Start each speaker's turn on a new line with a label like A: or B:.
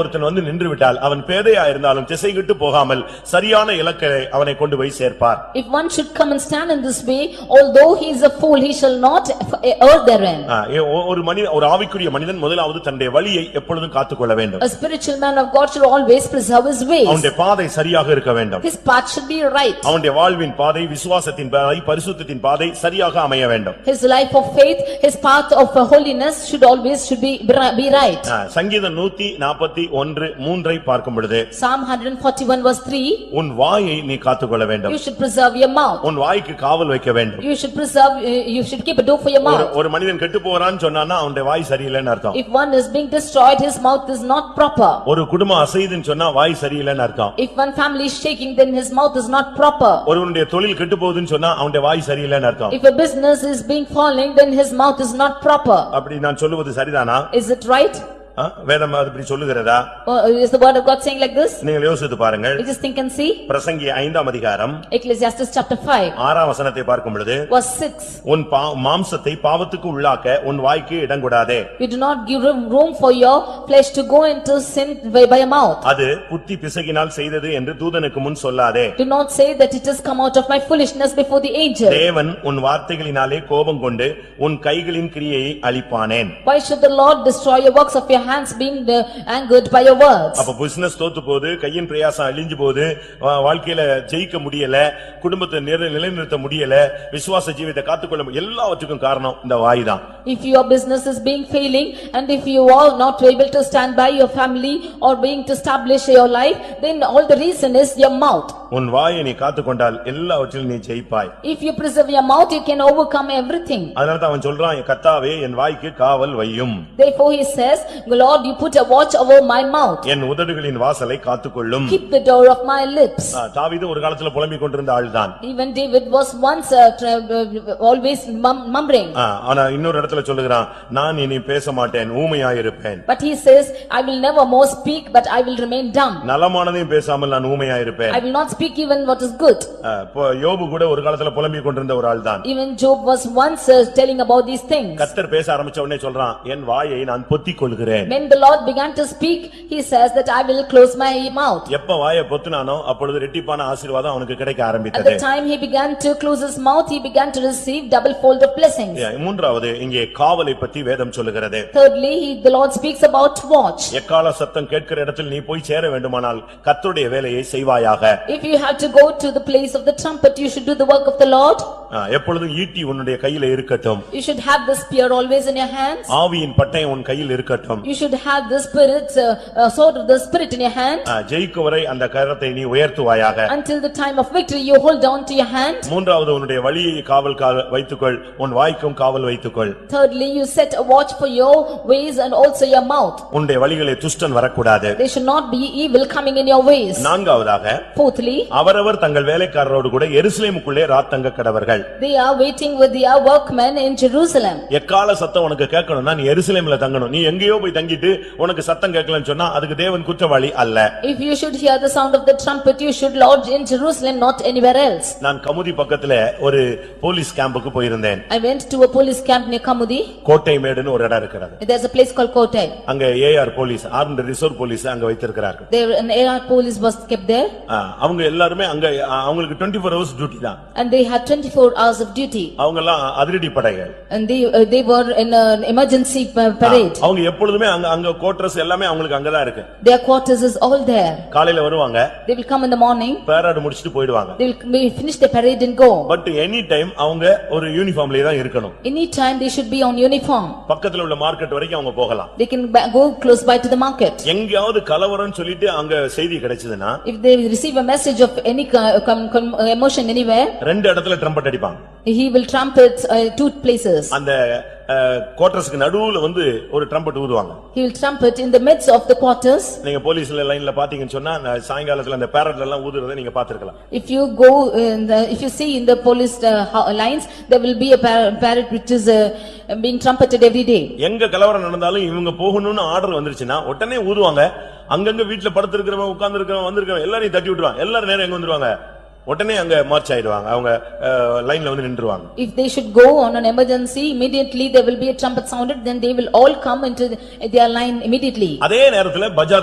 A: ஒருத்தன் வந்து நின்று விட்டால் அவன் பேதையா இருந்தாலும் திசைகிட்டு போகாமல் சரியான இலக்கை அவனை கொண்டு போய் சேர்ப்பார்
B: If one should come and stand in this way, although he is a fool, he shall not err therein.
A: ஆ, ஏ- ஒ- ஒரு மனிதன் ஒரு ஆவிக்குரிய மனிதன் முதலாவது தன்னுடைய வழியை எப்பொழுதும் காத்துக்கொள்ள வேண்டும்
B: A spiritual man of God should always preserve his ways.
A: அவனுடைய பாதை சரியாக இருக்க வேண்டும்
B: His path should be right.
A: அவனுடைய வாழ்வின் பாதை விசுவாசத்தின் பாதை பரிசுத்தத்தின் பாதை சரியாக அமைய வேண்டும்
B: His life of faith, his path of holiness should always should be be right.
A: ஆ, சங்கீதம் நூத்தி நாற்பத்தி ஒன்று மூன்றை பார்க்கும் பொழுது
B: Psalm 141 verse 3,
A: உன் வாயை நீ காத்துக்கொள்ள வேண்டும்
B: you should preserve your mouth.
A: உன் வாய்க்கு காவல் வைக்க வேண்டும்
B: You should preserve, uh, you should keep a door for your
A: ஒரு
B: mouth.
A: ஒரு மனிதன் கெட்டு போறான்னு சொன்னான்னா அவனுடைய வாய் சரியில்லைன்னு அர்த்தம்
B: If one is being destroyed, his mouth is not proper.
A: ஒரு குடும்பம் அசைதுன்னு சொன்னா வாய் சரியில்லைன்னு அர்த்தம்
B: If one family is shaking, then his mouth is not proper.
A: ஒருவனுடைய தொழில் கெட்டு போகுதுன்னு சொன்னா அவனுடைய வாய் சரியில்லைன்னு அர்த்தம்
B: If a business is being falling, then his mouth is not proper.
A: அப்படி நான் சொல்லுவது சரிதானா
B: Is it right?
A: ஆ? வேதம் அது இப்படி சொல்லுகிறதா
B: Or Is the word of God saying like this?
A: நீங்கள் யோசித்து பாருங்கள்
B: We just think and see.
A: பிரசங்கி ஐந்தாம் அதிகாரம்
B: Ecclesiastes chapter 5,
A: ஆறாம் வசனத்தை பார்க்கும் பொழுது
B: verse 6.
A: உன் பா- மாம்சத்தை பாவத்துக்கு உள்ளாக்க உன் வாய்க்கு இடங்கூடாதே
B: You do not give room room for your flesh to go into sin by by your mouth.
A: அது புத்தி பிசகினால் செய்தது என்று தூதனுக்கு முன் சொல்லாதே
B: Do not say that it has come out of my foolishness before the angel.
A: தேவன் உன் வார்த்தைகளினாலே கோபம் கொண்டு உன் கைகளின் கிரியையை அழிப்பானேன்
B: Why should the Lord destroy your works of your hands being uh, angered by your words?
A: அப்ப பிசினஸ் தோத்து போகுது கையின் பிரயாசம் அழிஞ்சு போகுது வா- வாழ்க்கையில ஜெயிக்க முடியல குடும்பத்தை நிர- நிலைநிறுத்த முடியல விசுவாச ஜீவியத்தை காத்துக்கொள்ள முடியல. எல்லாவற்றுக்கும் காரணம் இந்த வாய் தான்
B: If your business is being failing and if you are not able to stand by your family or being to establish your life, then all the reason is your mouth.
A: உன் வாயை நீ காத்துக்கொண்டால் எல்லாவற்றிலும் நீ ஜெயிப்பாய்
B: If you preserve your mouth, you can overcome everything.
A: அதனாலதான் அவன் சொல்றான் "என் கர்த்தாவே என் வாய்க்கு காவல் வையும்
B: Therefore he says, "Lord, you put a watch over my mouth,
A: என் உதடுகளின் வாசலை காத்துக்கொள்ளும்
B: keep the door of my lips."
A: ஆ, தாவீது ஒரு காலத்துல புலம்பிக் கொண்டிருந்த ஆள்தான்
B: Even David was once uh, tra- uh, always mum- mumbling,
A: ஆ, ஆனா இன்னொரு இடத்துல சொல்லுகிறான் நான் இனி பேச மாட்டேன் ஊமையாயிருப்பேன்
B: but he says, "I will never more speak, but I will remain dumb.
A: நலமானதையும் பேசாமல் நான் ஊமையாயிருப்பேன்
B: I will not speak even what is good."
A: ஆ, இப்போ யோபு கூட ஒரு காலத்துல புலம்பிக் கொண்டிருந்த ஒரு ஆள்தான்
B: Even Job was once uh, telling about these things.
A: கத்தர் பேச ஆரம்பிச்ச உடனே சொல்றான் என் வாயை நான் பொத்திக் கொள்கிறேன்
B: When the Lord began to speak, he says that I will close my mouth.
A: எப்ப வாயை பொத்துனானோ அப்பொழுது ரெட்டிப்பான ஆசீர்வாதம் அவனுக்கு கிடைக்க
B: At
A: ஆரம்பித்தது
B: the time he began to close his mouth, he began to receive double fold of blessings.
A: ஏ, மூன்றாவது இங்கே காவலை பத்தி வேதம் சொல்லுகிறது
B: Thirdly, he- the Lord speaks about watch.
A: எக்கால சத்தம் கேட்கிற இடத்தில் நீ போய் சேர வேண்டுமானால் கத்தருடைய வேலையை செய்வாயாக
B: If you have to go to the place of the trumpet, you should do the work of the Lord.
A: ஆ, எப்பொழுதும் ஈட்டி உன்னுடைய கையில இருக்கட்டும்
B: You should have the spear always in your hands.
A: ஆவியின் பட்டயம் உன் கையில் இருக்கட்டும்
B: You should have the spirit, uh, uh, sword of the spirit in your hand.
A: ஆ, ஜெயிக்கும் வரை அந்த கரத்தை நீ உயர்த்துவாயாக
B: Until the time of victory, you hold on to your hand.
A: மூன்றாவது உன்னுடைய வழியை காவல் கா- வைத்துக்கொள் உன் வாய்க்கும் காவல் வைத்துக்கொள்
B: Thirdly, you set a watch for your ways and also your mouth.
A: உன்னுடைய வழிகளை துஷ்டன் வரக்கூடாது
B: There should not be evil coming in your ways.
A: நான்காவதாக
B: Fourthly,
A: அவரவர் தங்கள் வேலைக்காரரோடு கூட எருசலேமுக்குள்ளே ராத்தங்க கடவர்கள்
B: they are waiting with their workmen in Jerusalem.
A: எக்கால சத்தம் உனக்கு கேட்கணும்னா நீ எருசலேம்ல தங்கணும் நீ எங்கேயோ போய் தங்கிட்டு உனக்கு சத்தம் கேட்கலன்னு சொன்னா அதுக்கு தேவன் குற்றவாளி அல்ல
B: If you should hear the sound of the trumpet, you should lodge in Jerusalem, not anywhere else.
A: நான் கமுதி பக்கத்துல ஒரு போலீஸ் கேம்புக்கு போயிருந்தேன்
B: I went to a police camp near Kamudi.
A: கோட்டை மேடுன்னு ஒரு இடம் இருக்கிறது
B: There's a place called Kotai.
A: அங்க AR police armed reserve police அங்க வைத்திருக்கிறார்கள்
B: There an AR police was kept there
A: ஆ, அவங்க எல்லாருமே அங்க ஆ, அவங்களுக்கு டுவெண்ட்டி ஃபோர் ஹவர்ஸ் டியூட்டி தான்
B: and they had twenty-four hours of duty.
A: அவங்க எல்லாம் அதிரடி படைகள்
B: And they, uh, they were in an emergency pa-
A: ah,
B: parade.
A: அவங்க எப்பொழுதுமே அங்க அங்க கோட்ரஸ் எல்லாமே அவங்களுக்கு அங்கதான் இருக்கு
B: Their quarters is all there.
A: காலையில வருவாங்க
B: They will come in the morning,
A: பேராடு முடிச்சிட்டு போயிடுவாங்க
B: they will may finish the parade and go.
A: But any time அவங்க ஒரு யூனிஃபார்ம்லயே தான் இருக்கணும்
B: Anytime they should be on uniform.
A: பக்கத்துல உள்ள மார்க்கெட் வரைக்கும் அவங்க போகலாம்
B: They can ba- go close by to the market.
A: எங்கேயாவது கலவரம்னு சொல்லிட்டு அங்க செய்தி கிடைச்சதுன்னா
B: If they receive a message of any co- com- com- uh, emotion anywhere,
A: ரெண்டு இடத்துல ட்ரம்பட் அடிப்பாங்க
B: he will trumpet uh, two places.
A: அந்த கோட்டர்ஸ்க்கு நடுவுல வந்து ஒரு ட்ரம்பட் ஊதுவாங்க
B: He will trumpet in the midst of the quarters.
A: நீங்க போலீஸ்ல லைன்ல பாத்தீங்கன்னு சொன்னா நான் சாயங்காலத்துல அந்த பேரட்ல எல்லாம் ஊதுறதை நீங்க பாத்துருக்கலாம்
B: If you go, in the- if you see in the police uh, ho- lines, there will be a par- parrot which is uh, being trumpeted every day.
A: எங்க கலவரம் நடந்தாலும் இவங்க போகணும்னு ஆர்டர் வந்துருச்சுன்னா உடனே ஊதுவாங்க அங்கங்க வீட்டுல படுத்திருக்கிறவன் உட்கார்ந்திருக்கிறவன் வந்திருக்கிறவன் எல்லாரையும் தட்டி விட்டுருவாங்க எல்லாரும் நேரம் எங்க வந்துருவாங்க உடனே அங்க மார்ச் ஆயிடுவாங்க அவங்க லைன்ல வந்து நின்றுவாங்க
B: If they should go on an emergency, immediately there will be a trumpet sounded, then they will all come into the- their line immediately.
A: அதே நேரத்துல பஜார்